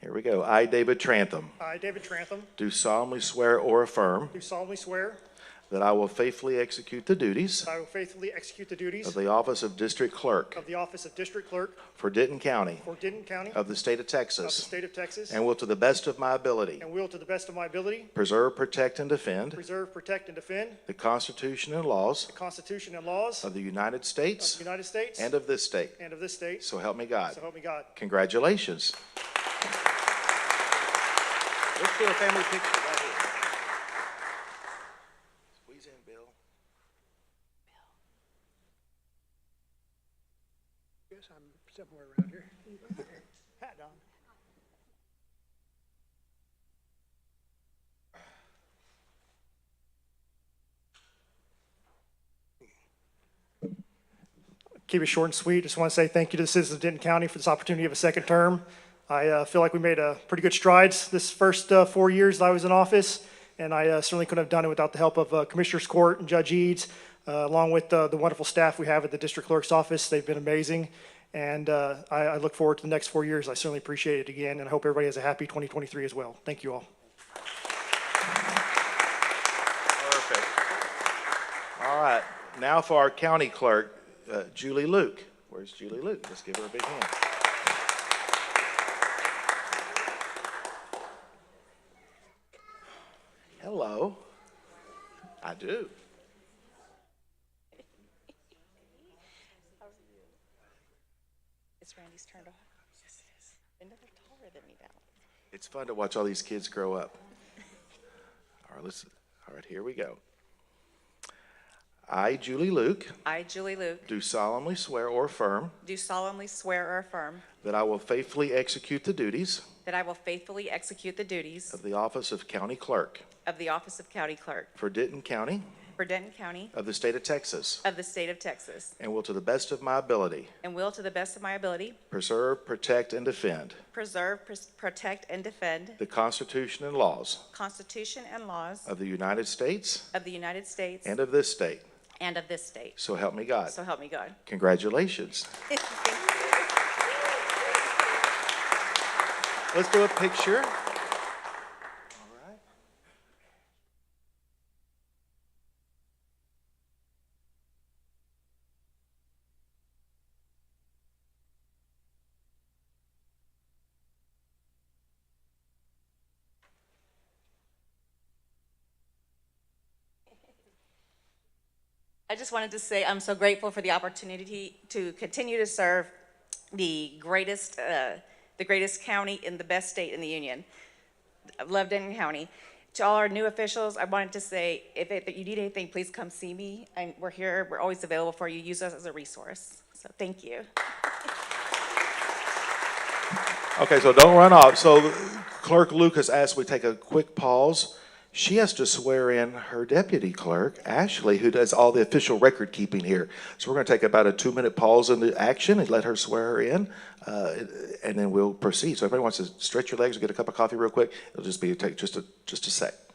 Here we go. I, David Trantham, I, David Trantham, do solemnly swear or affirm do solemnly swear that I will faithfully execute the duties that I will faithfully execute the of duties the office of District Clerk of the office of District Clerk for Denton County for Denton County of of the state of the Texas state of Texas, and will to the best of my ability and will to the best of my ability preserve, protect, and defend preserve, protect, and defend the Constitution and laws the Constitution and laws of of the United the States United States and of this state. and of this state. So help me God. So help me God. Congratulations. Let's do a family picture right here. Squeeze in, Bill. Guess I'm somewhere around here. Hat on. Keep it short and sweet. Just want to say thank you to the citizens of Denton County for this opportunity of a second term. I uh, feel like we made uh, pretty good strides this first uh, four years that I was in office, and I uh, certainly couldn't have done it without the help of uh, Commissioners Court and Judge Eads, uh, along with uh, the wonderful staff we have at the District Clerk's Office. They've been amazing, and uh, I I look forward to the next four years. I certainly appreciate it again, and I hope everybody has a happy 2023 as well. Thank you all. Perfect. All right, now for our county clerk, uh, Julie Luke. Where's Julie Luke? Let's give her a big hand. Hello. I do. It's Randy's turned off. Yes, it is. And they're taller than me now. It's fun to watch all these kids grow up. All right, let's, all right, here we go. I, Julie Luke, I, Julie Luke, do solemnly swear or affirm do solemnly swear or affirm that I will faithfully execute the duties that I will faithfully execute the duties of the office of county clerk of the office of county clerk for Denton County for Denton County of the state of Texas of the state of Texas, and will to the best of my ability and will, to the best of my ability, preserve, protect, and defend preserve, pres- protect, and defend the Constitution and laws Constitution and laws of the United States of the United States and of this state. and of this state. So help me God. So help me God. Congratulations. Let's do a picture. All right. I just wanted to say I'm so grateful for the opportunity to continue to serve the greatest, uh, the greatest county in the best state in the union. I love Denton County. To all our new officials, I wanted to say if, it, if you need anything, please come see me. And we're here. We're always available for you. Use us as a resource. So thank you. Okay, so don't run off. So Clerk Lucas asked we take a quick pause. She has to swear in her deputy clerk, Ashley, who does all the official record keeping here. So we're going to take about a two-minute pause in the action and let her swear her in, uh, and then we'll proceed. So if anybody wants to stretch your legs or get a cup of coffee real quick, it'll just be, take just a, just a sec.